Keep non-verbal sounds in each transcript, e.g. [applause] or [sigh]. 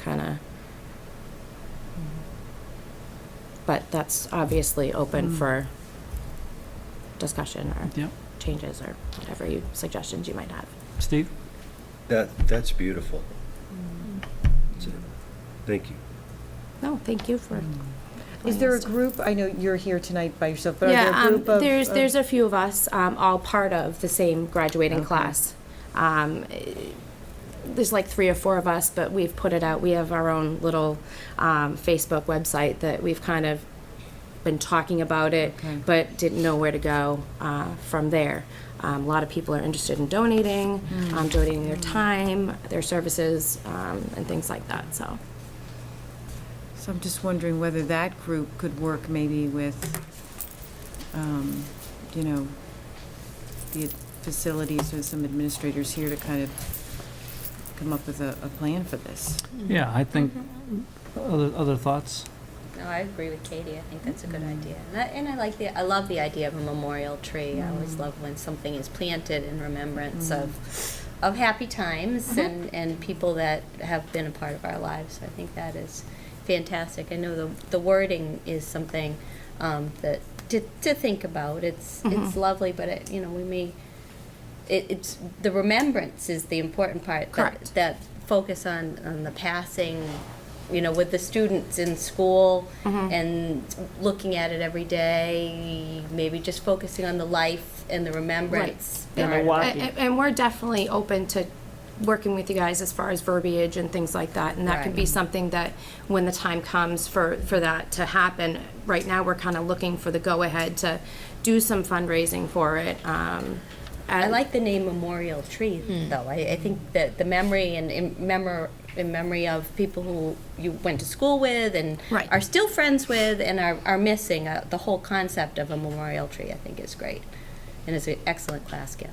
kind of. But that's obviously open Mm. for discussion or Yep. changes or whatever you, suggestions you might have. Steve? That, that's beautiful. That's it. Thank you. No, thank you for. Mm. Is bringing there a us to- group, I know you're here tonight by yourself, but are Yeah, there a um, group of? there's of- there's a few of us, um, all part of the same graduating Okay. class. Um, eh, there's like three or four of us, but we've put it out. We have our own little um, Facebook website that we've kind of been talking about it, but didn't know where to go uh, from there. Um, a lot of people are interested in donating, Hmm. um, donating their time, their services, um, and things like that. So. So I'm just wondering whether that group could work maybe with, um, you know, the facilities or some administrators here to kind of come up with a, a plan for this. Yeah, I think, other, other thoughts? No, I agree with Katie. I think that's a good idea. And I, and I like the, I love the idea of a memorial tree. I always love when something is planted in remembrance of, of happy times and, and people that have been a part of our lives. I think that is fantastic. I know the, the wording is something um, that to, to think about. It's it's lovely, but it, you know we may it, it's the remembrance is the important part. Correct. That, that focus on, on the passing, you know, with the students in school Mm-hmm. and looking at it every day, maybe just focusing on the life and the remembrance. Right. part. And, and- and we're definitely open to working with you guys as far as verbiage and things like that. And that could be Right. something that, when the time comes for, for that to happen, right now, we're kind of looking for the go-ahead to do some fundraising for it. um, I and- like the name memorial tree, though. I, I think that the memory and in memor in memory of people who you went to school with and Right. are still friends with and are, are missing uh, the whole concept of a memorial tree. I think is great, and is an excellent class gift.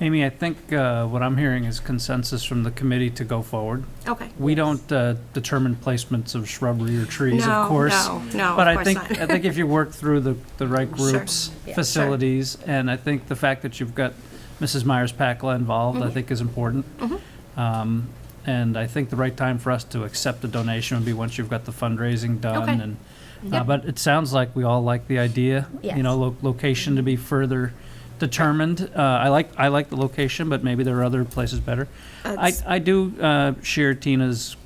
Amy, I think uh, what I'm hearing is consensus from the committee to go forward. Okay. We don't uh, determine placements of shrubbery or trees, No, of course. no, no, of But I course think, not. I think if you work through the, the right [laughs] Sure. groups, Yeah. facilities, and I think the fact that you've got Mrs. Myers-Pacla involved, Mm-hmm. I think is important. Um, And I think the right time for us to accept the donation would be once you've got the fundraising done Okay. and, uh, but it sounds like we all like the idea. You know, lo- location to be further determined. Uh, I like, I like the location, but maybe there are other places better. I, That's- Mm-hmm. I do uh, share Tina's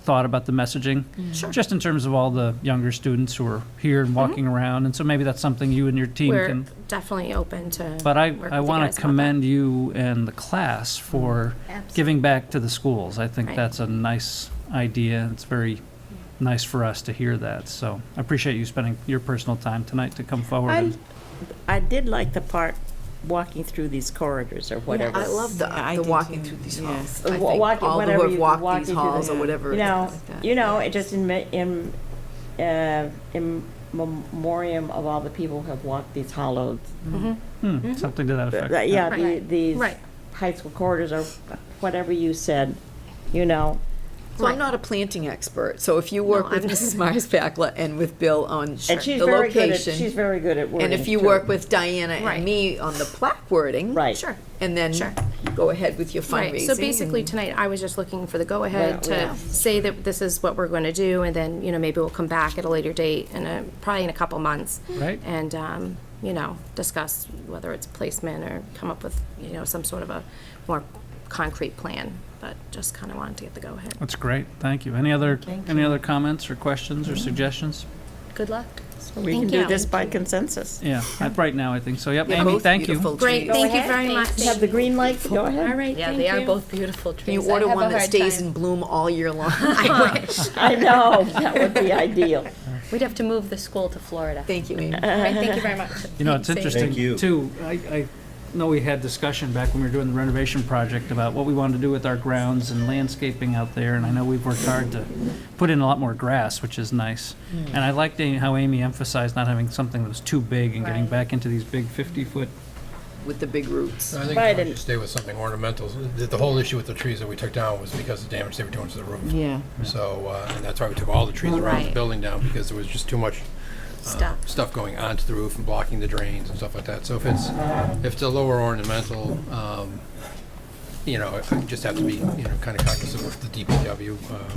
thought about the messaging, just in terms of all the younger students who are here and walking around, and so maybe that's something you and your team Mm-hmm. We're can. definitely open to. But I, work I with you guys want to about that. Mm-hmm. commend you and the class for Absolutely. giving back to the schools. I think Right. that's a nice idea. It's very nice for us to hear that. So I appreciate you spending your personal time tonight to come forward. I, and- I did like the part walking through these corridors or whatever. I love the, Yeah, I the do walking too. through these Yeah. halls. Uh, I wa- think walking- all whatever who you have do, walked walking these through halls the- or whatever. You it's know, like that. you know, it just in, me- in, uh, in memoriam of all the people who have walked these hollows. Hmm, Something to that effect. That- Yeah, the- Right. these Right. high school corridors or whatever you said, you know. So I'm not a planting expert, so if you work No, with I'm- Mrs. Myers Pacla and with Bill on And she's the very good at, location. she's very good at wording. And if you too. work with Diana Right. and me on the plaque wording. Right. Sure. And then Sure. go ahead with your fundraising. Right, so basically and- tonight, I was just looking for the go-ahead Yeah, to yeah. say that this is what we're going to do, and then, you know, maybe we'll come back at a later date, and uh, probably in a couple months. Right. And, um, you know, discuss whether it's placement or come up with, you know, some sort of a more concrete plan, but just kind of wanted to get the go-ahead. That's great. Thank you. Any other, any other comments or questions or suggestions? Good luck. We can Thank do you. this by consensus. Yeah, I- right now, I think so. Yep, They're Amy, both thank beautiful you. Great, trees. thank you ahead. very much. Thanks. Have the green light, go ahead. All right, Yeah, thank they are you. both beautiful trees. Can you I order have a one that hard stays time- in bloom all year [laughs] long? I know, that would be ideal. We'd have to move the school to Florida. Thank you, Amy. All right, [laughs] thank you very much. You know, it's Thanks, interesting, Amy. Thank you. too, I, I know we had discussion back when we were doing the renovation project about what we wanted to do with our grounds and landscaping out there, and I know we've worked hard to put in a lot more grass, which is nice. And I liked Amy- how Amy emphasized not having something that was too big and getting Right. back into these big 50-foot With the big roots. I think Right, if we and- should stay with something ornamental. The, the whole issue with the trees that we took down was because of the damage they were doing to the roof. Yeah. So, uh, and that's why we took all the trees around Right. the building down, because there was just too much uh, Stuff. stuff going onto the roof and blocking the drains and stuff like that. So if it's, if it's a lower ornamental, um, you know, it- it just have to be, you know, kind of cognizant of the DPW, uh,